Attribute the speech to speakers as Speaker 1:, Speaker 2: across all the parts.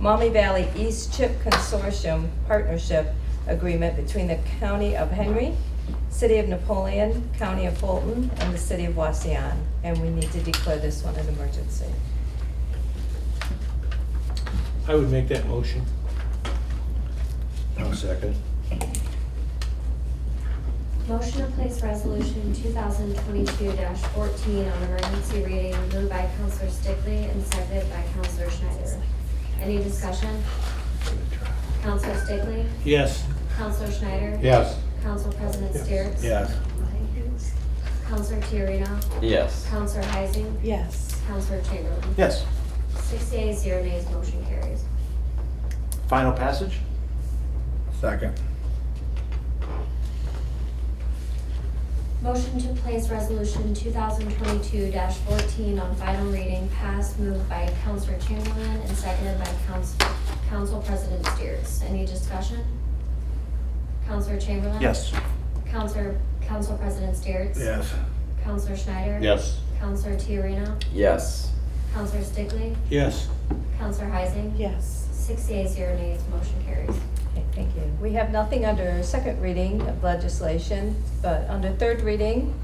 Speaker 1: Maumee Valley East Chip Consortium Partnership Agreement between the County of Henry, City of Napoleon, County of Fulton, and the City of Waseon. And we need to declare this one an emergency.
Speaker 2: I would make that motion.
Speaker 3: I'll second.
Speaker 4: Motion to place resolution two thousand twenty-two fourteen on emergency reading moved by Counselor Stickley and seconded by Counselor Schneider. Any discussion? Counselor Stickley?
Speaker 2: Yes.
Speaker 4: Counselor Schneider?
Speaker 3: Yes.
Speaker 4: Council President Steeritz?
Speaker 3: Yes.
Speaker 4: Counselor Tiarena?
Speaker 5: Yes.
Speaker 4: Counselor Heising?
Speaker 1: Yes.
Speaker 4: Counselor Chamberlain?
Speaker 3: Yes.
Speaker 4: Six yeas, zero nays, motion carries.
Speaker 5: Final passage?
Speaker 3: Second.
Speaker 4: Motion to place resolution two thousand twenty-two fourteen on final reading passed, moved by Counselor Chamberlain and seconded by Council, Council President Steers. Any discussion? Counselor Chamberlain?
Speaker 3: Yes.
Speaker 4: Counselor, Council President Steers?
Speaker 3: Yes.
Speaker 4: Counselor Schneider?
Speaker 3: Yes.
Speaker 4: Counselor Tiarena?
Speaker 5: Yes.
Speaker 4: Counselor Stickley?
Speaker 2: Yes.
Speaker 4: Counselor Heising?
Speaker 1: Yes.
Speaker 4: Six yeas, zero nays, motion carries.
Speaker 1: Okay, thank you. We have nothing under second reading of legislation, but under third reading,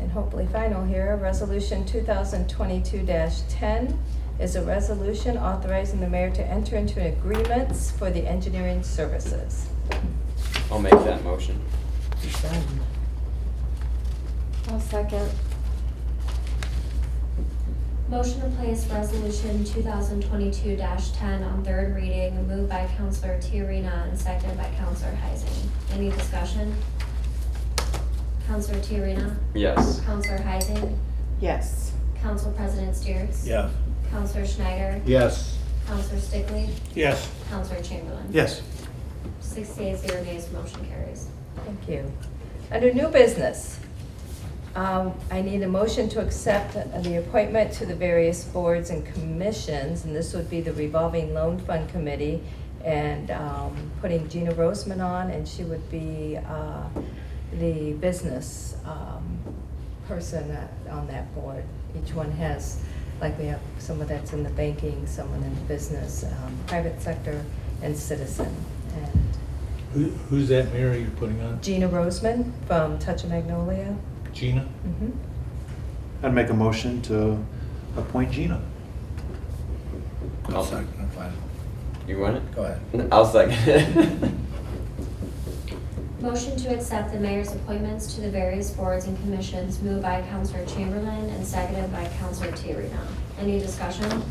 Speaker 1: and hopefully final here, Resolution 2022-10 is a resolution authorizing the mayor to enter into agreements for the engineering services.
Speaker 5: I'll make that motion.
Speaker 6: I'll second.
Speaker 4: Motion to place resolution two thousand twenty-two ten on third reading, moved by Counselor Tiarena and seconded by Counselor Heising. Any discussion? Counselor Tiarena?
Speaker 5: Yes.
Speaker 4: Counselor Heising?
Speaker 6: Yes.
Speaker 4: Council President Steers?
Speaker 3: Yes.
Speaker 4: Counselor Schneider?
Speaker 3: Yes.
Speaker 4: Counselor Stickley?
Speaker 2: Yes.
Speaker 4: Counselor Chamberlain?
Speaker 3: Yes.
Speaker 4: Six yeas, zero nays, motion carries.
Speaker 1: Thank you. Under new business, um, I need a motion to accept the appointment to the various boards and commissions, and this would be the revolving loan fund committee, and um, putting Gina Roseman on, and she would be uh, the business um, person that- on that board. Each one has, like we have someone that's in the banking, someone in business, um, private sector, and citizen. And
Speaker 2: Who, who's that mayor you're putting on?
Speaker 1: Gina Roseman from Touch of Magnolia.
Speaker 2: Gina?
Speaker 1: Mhm.
Speaker 7: I'd make a motion to appoint Gina.
Speaker 5: I'll-
Speaker 3: I'll second. Fine.
Speaker 5: You want it?
Speaker 3: Go ahead.
Speaker 5: I'll second it.
Speaker 4: Motion to accept the mayor's appointments to the various boards and commissions moved by Counselor Chamberlain and seconded by Counselor Tiarena. Any discussion?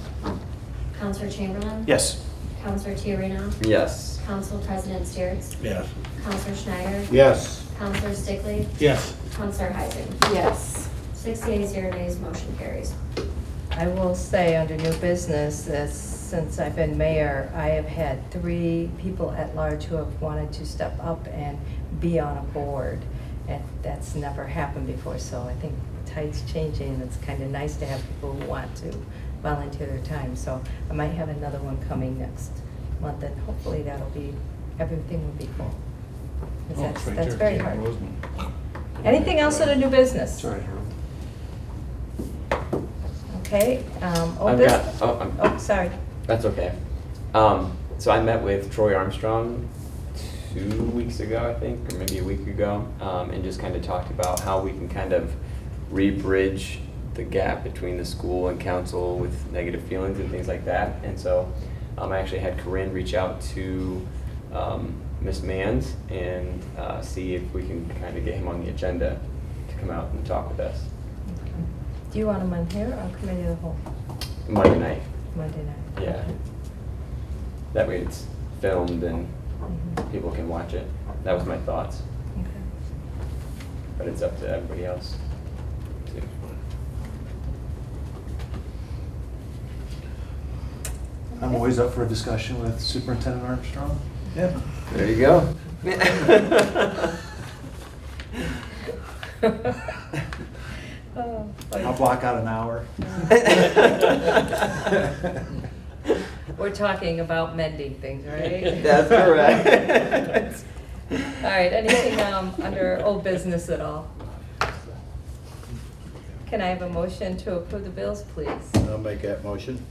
Speaker 4: Counselor Chamberlain?
Speaker 7: Yes.
Speaker 4: Counselor Tiarena?
Speaker 5: Yes.
Speaker 4: Council President Steeritz?
Speaker 3: Yes.
Speaker 4: Counselor Schneider?
Speaker 3: Yes.
Speaker 4: Counselor Stickley?
Speaker 2: Yes.
Speaker 4: Counselor Heising?
Speaker 6: Yes.
Speaker 4: Six yeas, zero nays, motion carries.
Speaker 1: I will say, under new business, that since I've been mayor, I have had three people at large who have wanted to step up and be on a board. And that's never happened before, so I think the tide's changing. It's kind of nice to have people who want to volunteer their time. So I might have another one coming next month, and hopefully that'll be, everything will be full. 'Cause
Speaker 2: Oh,
Speaker 1: that's,
Speaker 2: it's right
Speaker 1: that's
Speaker 2: there,
Speaker 1: very
Speaker 2: Gina
Speaker 1: hard.
Speaker 2: Roseman.
Speaker 1: Anything else under new business?
Speaker 7: Sorry, Harold.
Speaker 1: Okay, um, old
Speaker 5: I've
Speaker 1: business.
Speaker 5: got- oh, I'm-
Speaker 1: Oh, sorry.
Speaker 5: That's okay. Um, so I met with Troy Armstrong two weeks ago, I think, or maybe a week ago, um, and just kind of talked about how we can kind of re-bridge the gap between the school and council with negative feelings and things like that. And so um, I actually had Corinne reach out to um, Ms. Manns and uh, see if we can kind of get him on the agenda to come out and talk with us
Speaker 1: Do you want them on here or committee of the whole,
Speaker 5: Monday night.
Speaker 1: Monday night?
Speaker 5: Yeah. That way it's filmed and
Speaker 1: Mhm,
Speaker 5: people can watch it. That was my thoughts,
Speaker 1: okay.
Speaker 5: but it's up to everybody else. too.
Speaker 7: I'm always up for a discussion with Superintendent Armstrong. Yeah.
Speaker 5: There you go.
Speaker 1: Oh,
Speaker 7: I'll block out an hour.
Speaker 1: We're talking about mending things, right?
Speaker 5: That's correct.
Speaker 1: All right, anything um, under old business at all? Can I have a motion to approve the bills, please?
Speaker 3: I'll make that motion.